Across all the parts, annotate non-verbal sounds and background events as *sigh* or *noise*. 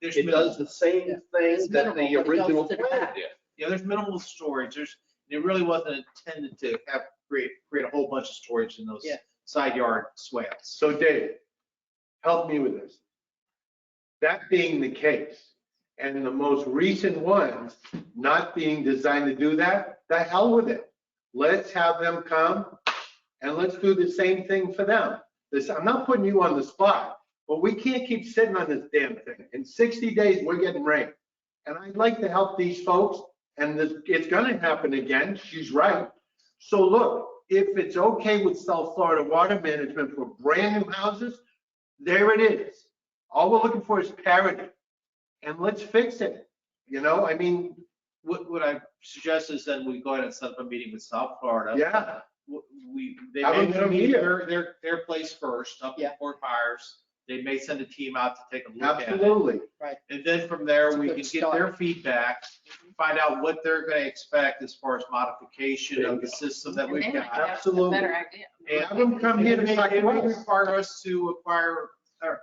There's It does minimal, the same Yeah. thing It's minimal, that the but it goes original to the plan back. did. yeah, there's minimal storage. There's, it really wasn't intended to have, create, create a whole bunch of storage in those Yeah. side yard swales. So Dave, help me with this. That being the case, and the most recent ones not being designed to do that, the hell with it. Let's have them come and let's do the same thing for them. This, I'm not putting you on the spot, but we can't keep sitting on this damn thing. In 60 days, we're getting rain. And I'd like to help these folks, and this- it's gonna happen again, she's right. So look, if it's okay with South Florida Water Management for brand new houses, there it is. All we're looking for is parity. And let's fix it, you know, I mean, What, what I suggest is then we go ahead and set up a meeting with South Florida. yeah, w- we, they Have may them come need here. their, their, their place first, up in Yeah. Fort Myers. They may send a team out to take a look at it. absolutely. And then from It's there, a we good Mm-hmm. can get their feedback, find out what they're gonna expect as far as modification of the system that we've And then I got. have a absolutely. Better idea. And Have them come here It to may, talk it to may us. require us to acquire, or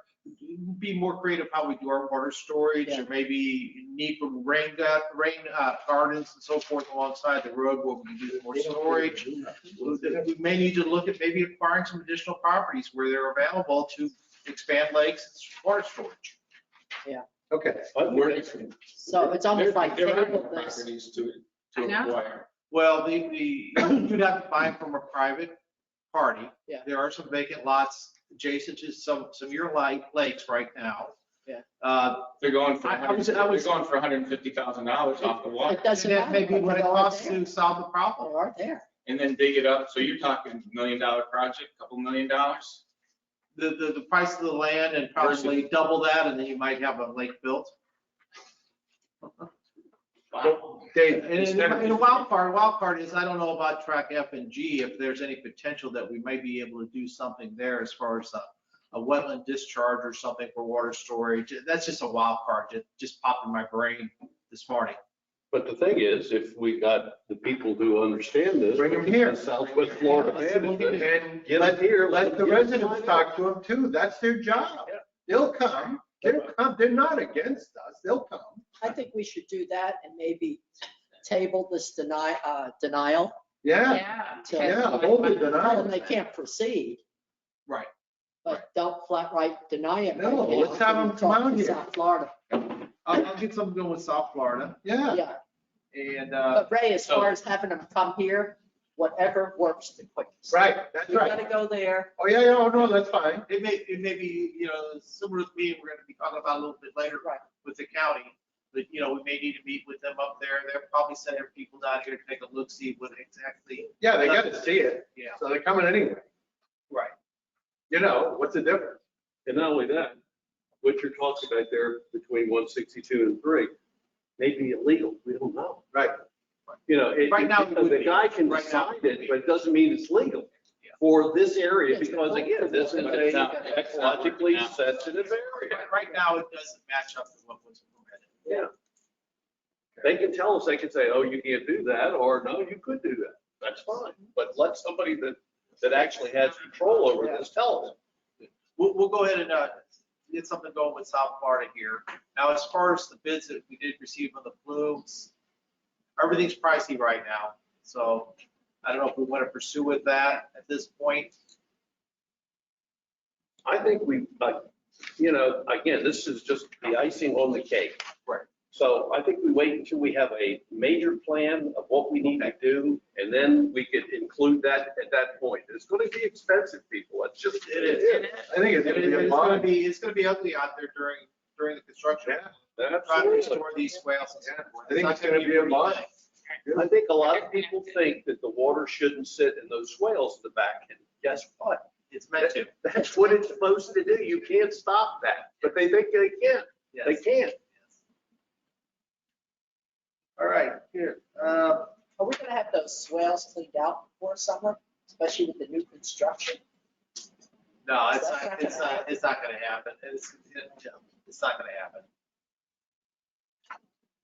be more creative how we do our water storage, or maybe need from rain, gut- rain uh, gardens and so forth alongside the road where we can do more storage. We may need to look at maybe acquiring some additional properties where they're available to expand lakes and water storage. Okay. We're- So it's almost there- like there are table this. Properties to, to I know. acquire. Well, the, the, you'd have to buy from a private party. Yeah. There are some vacant lots adjacent to some, some of your light lakes right now. Yeah. Uh, They're going for, I- I was- I 100 they're was- going for hundred and fifty thousand dollars off *laughs* the water, It doesn't And that matter. may be what it They are costs there. to solve the They problem. are there. and then dig it up, so you're talking million dollar project, couple million dollars? The, the, the price of the land and probably double that, and then you might have a lake built. Wow. Dave, And and- and the wild card, wild card is, I don't know about track F and G, if there's any potential that we might be able to do something there as far as a, a wetland discharge or something for water storage. That's just a wild card, just, just popped in my brain this morning. But the thing is, if we got the people who understand this. Bring 'em here. Southwest Florida. management, And Get let, them here. let the Get 'em residents signed up. talk to them too, that's their job. Yeah. They'll come, they'll come, they're not against us, they'll come. I think we should do that and maybe table this deny, uh, denial, Yeah, Yeah. So- okay. yeah, hold the denial. and they can't proceed. Right. But don't flat right deny it. No, let's have 'em come out here. South Florida, I'll, I'll get something going with South Florida yeah. yeah. and, uh, But Ray, as so- far as having them come here, whatever works the quickest. Right, that's You gotta right. go there. Oh, yeah, yeah, oh, no, that's fine. it may, it may be, you know, similar to me, we're gonna be talking about a little bit later, Right. with the county. But, you know, we may need to meet with them up there. They'll probably send their people down here to take a look, see what exactly, Yeah, they gotta see it, yeah. so they're coming anyway. Right. You know, what's the difference? And not only that, what you're talking about there between one sixty-two and three may be illegal. We don't know. Right. You know, it, Right now, it would the be. guy can Right now, decide it would it, be. but it doesn't mean it's legal Yeah. for this area Yes, because but- again, this is But a it's not- it's not working ecologically out. sensitive area. Right- Right now, it doesn't match up with what was permitted. Yeah. They can tell us, they can say, oh, you can't do that, or no, you could do that. That's fine. But let somebody that, that actually has control over this tell us. We'll, we'll go ahead and, uh, get something going with South Florida here. Now, as far as the bids that we did receive on the plumes, everything's pricey right now, so I don't know if we want to pursue with that at this point. I think we, like, you know, again, this is just the icing on the cake. Right. So I think we wait until we have a major plan of what we need to do, and then we could include that at that point. It's gonna be expensive, people. It's just, It it is. is. I think it's It's gonna be gonna a lot. be, it's gonna be ugly out there during, during the construction. Yeah, Trying to Absolutely. restore these swales. and so forth. I think not it's gonna be a pretty lot. thing. I think a lot of people think that the water shouldn't sit in those swales in the back, and guess what? It's meant to. That's what it's supposed to do. You can't stop that, but they think they can. They Yes. can't. All right, here, uh, Are we gonna have those swales cleaned out before summer, especially with the new construction? no, it's not, it's not, it's not gonna happen. It's, it's not gonna happen.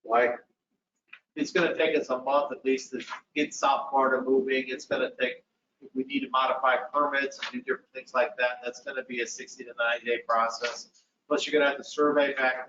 Why? It's gonna take us a month at least to get South Florida moving. It's gonna take, if we need to modify permits and do different things like that, that's gonna be a sixty to ninety day process. Plus, you're gonna have to survey back